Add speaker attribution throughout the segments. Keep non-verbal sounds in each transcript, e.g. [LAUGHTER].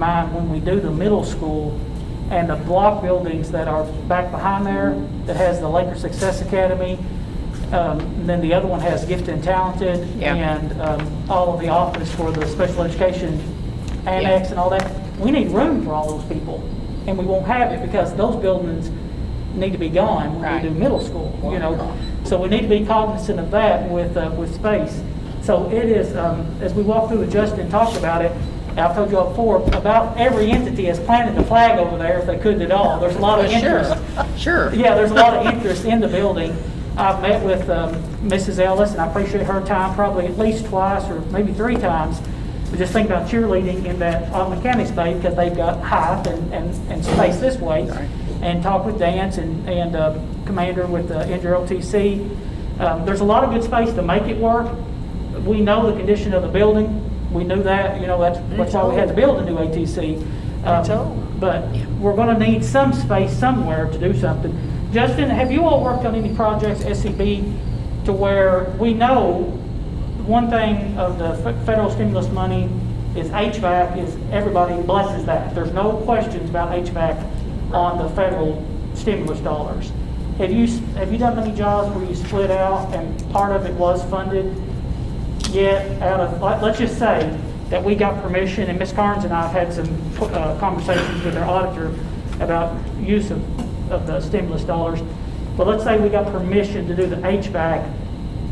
Speaker 1: mind when we do the middle school and the block buildings that are back behind there, that has the Laker Success Academy, um, and then the other one has Gifted and Talented,
Speaker 2: Yeah.
Speaker 1: and um, all of the office for the special education annex and all that, we need room for all those people, and we won't have it because those buildings need to be gone when
Speaker 2: Right.
Speaker 1: we do middle school, you know? So we need to be cognizant of that with, uh, with space. So it is, um, as we walked through, it, Justin talked about it, and I've told you all before, about every entity has planted a flag over there if they could at all. There's a lot of interest.
Speaker 2: Sure.
Speaker 1: Yeah, there's a lot of interest in the building. I've met with um, Mrs. Ellis, and I appreciate her time probably at least twice or maybe three times. But just think about cheerleading in that Ottawa County Day because they've got height and, and, and space this way. And talk with Dance and, and uh, Commander with the NJROTC. Um, There's a lot of good space to make it work. We know the condition of the building. We knew that, you know, that's, that's why we had to build a new ATC. Um,
Speaker 2: told.
Speaker 1: but we're gonna need some space somewhere to do something. Justin, have you all worked on any projects, SCB, to where we know, one thing of the fe- federal stimulus money is HVAC, is everybody blesses that. There's no questions about HVAC on the federal stimulus dollars. Have you, s- have you done many jobs where you split out and part of it was funded? yet out of, let- let's just say that we got permission, and Ms. Carnes and I have had some uh, conversations with our auditor about use of, of the stimulus dollars, but let's say we got permission to do the HVAC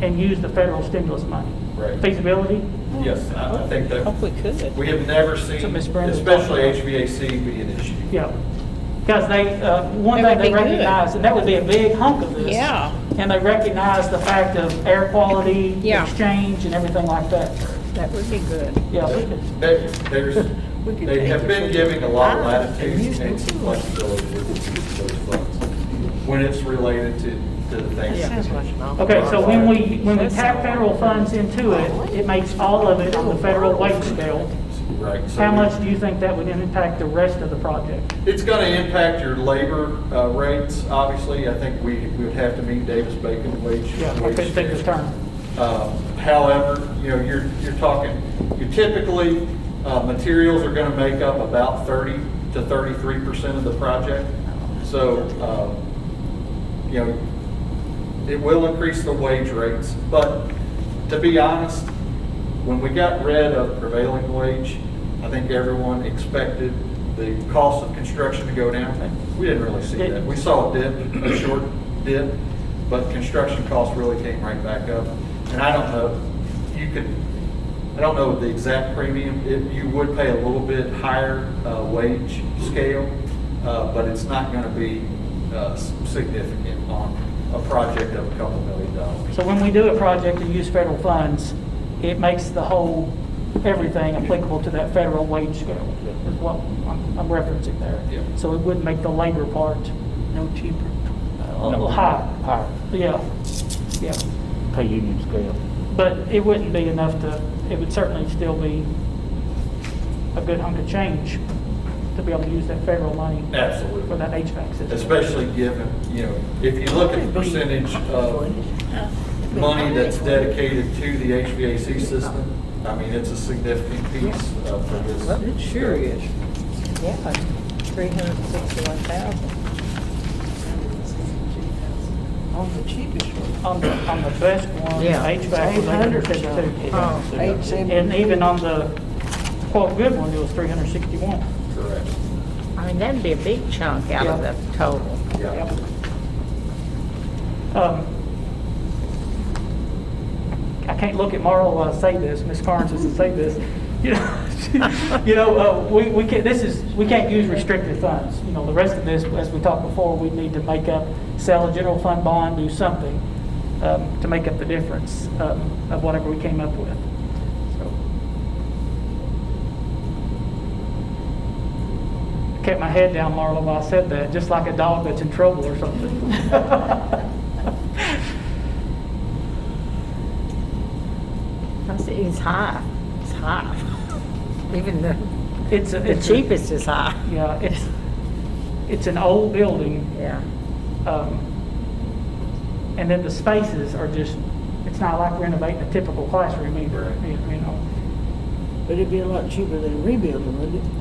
Speaker 1: and use the federal stimulus money.
Speaker 3: Right.
Speaker 1: Feasibility?
Speaker 3: Yes, I I think
Speaker 2: Hope
Speaker 3: that,
Speaker 2: we could.
Speaker 3: we have never seen,
Speaker 1: So Ms. Brandon-
Speaker 3: especially HVAC be an issue.
Speaker 1: Yeah. Because they, uh, one
Speaker 2: That
Speaker 1: thing
Speaker 2: would
Speaker 1: they
Speaker 2: be good.
Speaker 1: recognize, and that would be a big hunk of this.
Speaker 2: Yeah.
Speaker 1: And they recognize the fact of air quality,
Speaker 2: Yeah.
Speaker 1: exchange, and everything like that.
Speaker 2: That would be good.
Speaker 1: Yeah. we could-
Speaker 3: They, there's,
Speaker 2: [LAUGHS] We could
Speaker 3: they
Speaker 2: take
Speaker 3: have
Speaker 2: it
Speaker 3: been
Speaker 2: from-
Speaker 3: giving a lot of
Speaker 2: Ah,
Speaker 3: latitude
Speaker 2: amusement
Speaker 3: and some
Speaker 2: too.
Speaker 3: flexibility with those funds, when it's related to, to the things.
Speaker 2: That sounds like an awful
Speaker 1: Okay, so when we, when we tap federal funds into it, it makes all of it on the federal wage scale.
Speaker 3: Right. so
Speaker 1: How much do you think that would impact the rest of the project?
Speaker 3: It's going to impact your labor uh, rates, obviously. I think we, we would have to meet Davis-Bacon wage.
Speaker 1: Yeah, I couldn't think of the term.
Speaker 3: Uh, However, you know, you're, you're talking, you typically, uh, materials are going to make up about 30 to 33% of the project. So, um, you know, it will increase the wage rates, but to be honest, when we got rid of prevailing wage, I think everyone expected the cost of construction to go down. We didn't really see that. We saw a dip, a short dip, but construction costs really came right back up. And I don't know, you could, I don't know the exact premium, If you would pay a little bit higher uh, wage scale, uh, but it's not going to be uh, s- significant on a project of a couple million dollars.
Speaker 1: So when we do a project and use federal funds, it makes the whole, everything applicable to that federal wage scale, is what I'm I'm referencing there.
Speaker 3: Yeah.
Speaker 1: So it would make the labor part
Speaker 4: No cheaper.
Speaker 1: uh, high.
Speaker 5: Higher,
Speaker 1: Yeah, yeah.
Speaker 5: pay union scale.
Speaker 1: But it wouldn't be enough to, it would certainly still be a good hunk of change to be able to use that federal money for
Speaker 3: Absolutely.
Speaker 1: that HVAC system.
Speaker 3: Especially given, you know, if you look at the percentage of money that's dedicated to the HVAC system, I mean, it's a significant piece uh, for this.
Speaker 4: It sure is.
Speaker 2: Yeah, three hundred and sixty-one thousand.
Speaker 4: On the cheapest one.
Speaker 1: On the, on the best one,
Speaker 2: Yeah.
Speaker 1: HVAC was 852.
Speaker 2: Oh.
Speaker 4: Eight seventy.
Speaker 1: And even on the quote good one, it was 361.
Speaker 3: Correct.
Speaker 2: I mean, that'd be a big chunk out of
Speaker 1: Yeah.
Speaker 2: the total.
Speaker 3: Yeah.
Speaker 1: Yep. Um, I can't look at Marla while I say this, Ms. Carnes doesn't say this. [LAUGHS] You know, [LAUGHS] you know, uh, we, we can't, this is, we can't use restricted funds. You know, the rest of this, as we talked before, we need to make up, sell a general fund bond, do something um, to make up the difference um, of whatever we came up with. So Kept my head down, Marla, while I said that, just like a dog that's in trouble or something.
Speaker 2: I see, it's high, it's high. [LAUGHS] Even the,
Speaker 1: [LAUGHS] It's, a-
Speaker 2: the
Speaker 1: it's. a-
Speaker 2: cheapest is high.
Speaker 1: Yeah, it's, it's an old building,
Speaker 2: Yeah.
Speaker 1: um, and then the spaces are just, it's not like renovating a typical classroom either,
Speaker 3: Right.
Speaker 1: you you know?
Speaker 4: But it'd be a lot cheaper than rebuilding, wouldn't it?
Speaker 3: Oh,